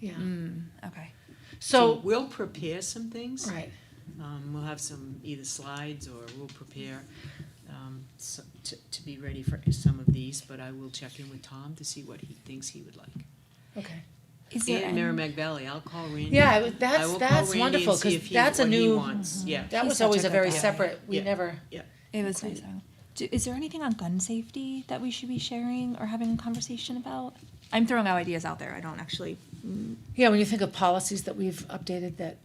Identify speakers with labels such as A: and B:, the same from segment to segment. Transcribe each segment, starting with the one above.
A: Yeah.
B: Mm, okay.
A: So,
C: We'll prepare some things.
A: right.
C: Um, we'll have some either slides or we'll prepare, um, so, to, to be ready for some of these, but I will check in with Tom to see what he thinks he would like.
A: Okay.
B: Is there
C: And
B: any-
C: Merrimack Valley, I'll call Randy.
A: Yeah, I would-
C: I
A: that's
C: will call
A: that's
C: Randy
A: wonderful
C: and see
A: because
C: if he-
A: that's a
C: what he
A: new. Mm-hmm.
C: wants. Yeah,
A: That
B: He's
A: was
B: such
A: always
B: a
A: a very
B: good guy.
A: separate. We
C: Yeah.
A: never.
B: It was
A: Included.
B: nice. Alan. Do, is there anything on gun safety that we should be sharing or having a conversation about? I'm throwing out ideas out there. I don't actually.
A: Yeah, when you think of policies that we've updated, that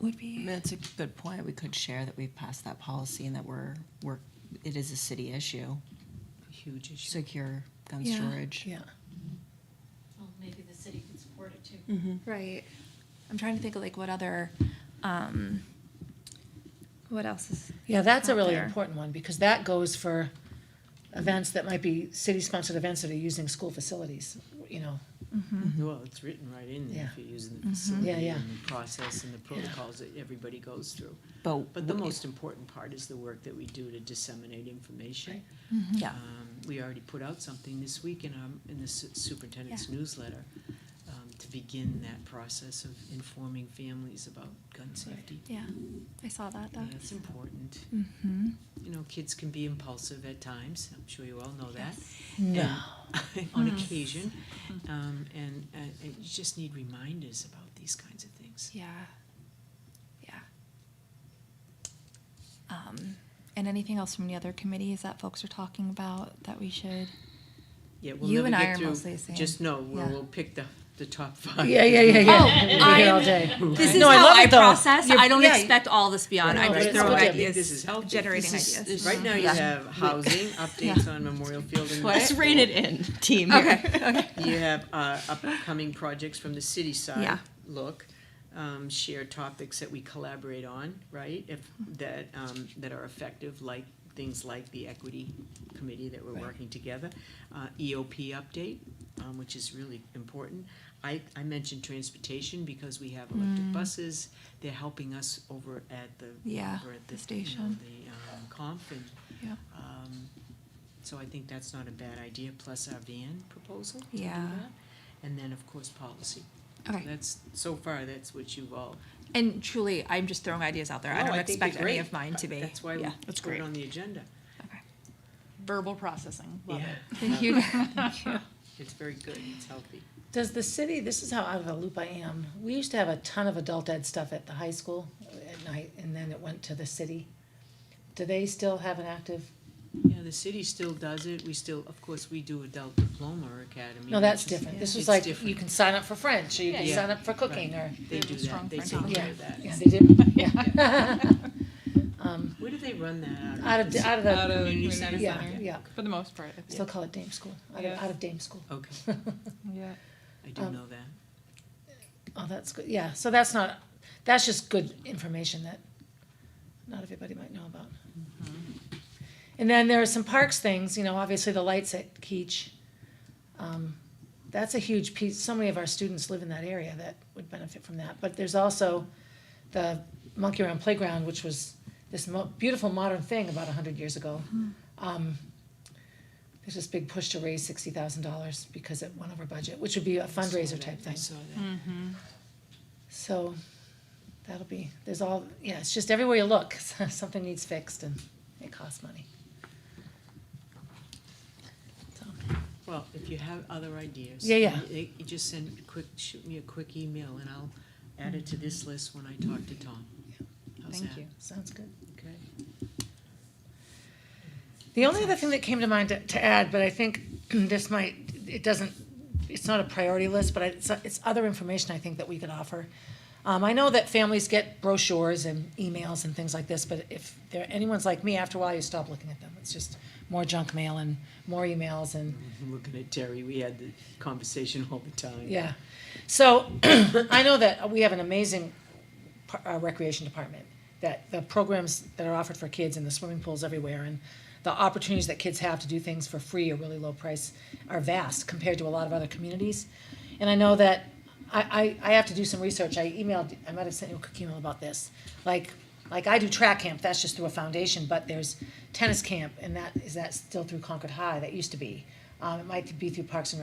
B: Would be.
D: That's a good point. We could share that we've passed that policy and that we're, we're, it is a city issue,
C: Huge issue.
D: secure gun
B: Yeah.
D: storage.
A: yeah.
E: Well, maybe the city could support it too.
B: Right. I'm trying to think of like what other. Um, what else is.
A: Yeah, that's a
B: out
A: really
B: there.
A: important one because that goes for events that might be city-sponsored events that are using school facilities, you know.
C: Well, it's written right in there if you're using the
A: Mm-hmm. Yeah,
C: facility
A: yeah.
C: and the process and the protocols that everybody goes through.
D: But.
C: But the
D: w-
C: most important part is the work that we do to disseminate information.
B: Mm-hmm.
D: Yeah.
C: Um, we already put out something this week in our, in the su- superintendent's newsletter, um, to begin that process of informing families about gun safety.
B: Yeah. I saw that. That.
C: That's important.
B: Mm-hmm.
C: You know, kids can be impulsive at times, I'm sure you all know that.
A: No.
C: and- On
B: Mm-hmm.
C: occasion, um, and, uh, and you just need reminders about these kinds of things.
B: Yeah. Yeah. Um, and anything else from the other committees that folks are talking about that we should?
C: Yeah, we'll
B: You
C: never
B: and I
C: get
B: are
C: through-
B: mostly the same.
C: Just know, we'll,
B: Yeah.
C: we'll pick the, the top five.
A: Yeah, yeah, yeah, yeah.
B: Oh,
A: We'll be here all
B: I'm-
A: day.
B: This
A: No, I love it, though. You're- yeah, you-
B: all this beyond.
C: No,
A: I
C: but
A: just
C: it's
A: throw
C: good. I
A: ideas,
C: think This is healthy.
B: generating
C: This is-
B: ideas.
C: this- Right now, you
B: Yeah.
C: have housing, updates on Memorial Field and.
D: Let's rein it in, team.
C: You have uh, upcoming projects from the city side,
B: Yeah.
C: look, um, share topics that we collaborate on, right? If, that, um, that are effective, like, things like the equity committee that we're working together. Uh, EOP update, um, which is really important. I, I mentioned transportation because we have
B: Mm.
C: electric buses, they're helping us over at the.
B: Yeah,
C: over at
B: the
C: you know,
B: station.
C: The, um, conf and.
B: Yeah.
C: Um, so I think that's not a bad idea, plus our van proposal. to do
B: Yeah.
C: that. And then, of course, policy.
B: Okay.
C: That's, so far, that's what you've all.
B: And truly, I'm just throwing ideas out there. I
C: No,
B: don't
C: think
B: expect
C: they're
B: any
C: great.
B: of mine to be.
C: That's why we
B: yeah.
C: put it on the agenda.
B: Okay.
F: verbal processing. Love
C: Yeah.
F: it.
B: Thank you.
C: It's very good, it's healthy.
A: Does the city, this is how out of the loop I am, we used to have a ton of adult ed stuff at the high school at night, and then it went to the city. Do they still have an active,
C: Yeah, the city still does it, we still, of course, we do adult diploma academy.
A: no, that's
C: which is-
A: different, this
C: It's
A: was like, you
C: different.
A: can sign up for French, or you can
C: Yeah.
A: sign up for cooking, or,
C: They
F: They have
C: do
F: a strong
C: that, they
F: French
C: take
A: office.
C: care of that.
A: yeah, they did, yeah. Um,
C: Where do they run that
A: Out of, out of the,
F: Out of the community
C: Community center.
F: center,
A: yeah, yeah,
F: for the most part. I think.
A: still call it dame school, out of,
F: Yeah.
A: out of dame school.
C: Okay,
F: Yeah.
C: I do
A: Um,
C: know that.
A: Oh, that's good. Yeah, so that's not, that's just good information that not everybody might know about. And then there are some parks things, you know, obviously the lights at Keach. Um, That's a huge piece. So many of our students live in that area that would benefit from that. But there's also the Monkey Around Playground, which was this mo- beautiful modern thing about hundred years ago. Um, There's this big push to raise sixty thousand dollars because it went over budget, which would be a
C: I saw
A: fundraiser
C: that,
A: type
C: I
A: thing.
C: saw that.
A: So that'll be, there's all, yeah, it's just everywhere you look, something needs fixed and it costs money. So,
C: Well, if you have other ideas.
A: Yeah, yeah.
C: You you just send quick, shoot me a quick email and I'll add it to this list when I talk to Tom. How's
F: Thank
C: that?
F: you.
A: Sounds good.
C: Okay.
A: The only other thing that came to mind to- to add, but I think this might, it doesn't, it's not a priority list, but I- it's, it's other information I think that we could offer. Um, I know that families get brochures and emails and things like this, but if there, anyone's like me, after a while you stop looking at them. It's just more junk mail and more emails and
C: I'm looking at Terry, we had the conversation all the time.
A: Yeah. So I know that we have an amazing par- uh, recreation department, that the programs that are offered for kids and the swimming pools everywhere and the opportunities that kids have to do things for free or really low price are vast compared to a lot of other communities. And I know that I, I, I have to do some research. I emailed, I might have sent you a quick email about this. Like, like I do track camp, that's just through a foundation, but there's tennis camp and that, is that still through Concord High? That used to be. Um, it might be through Parks and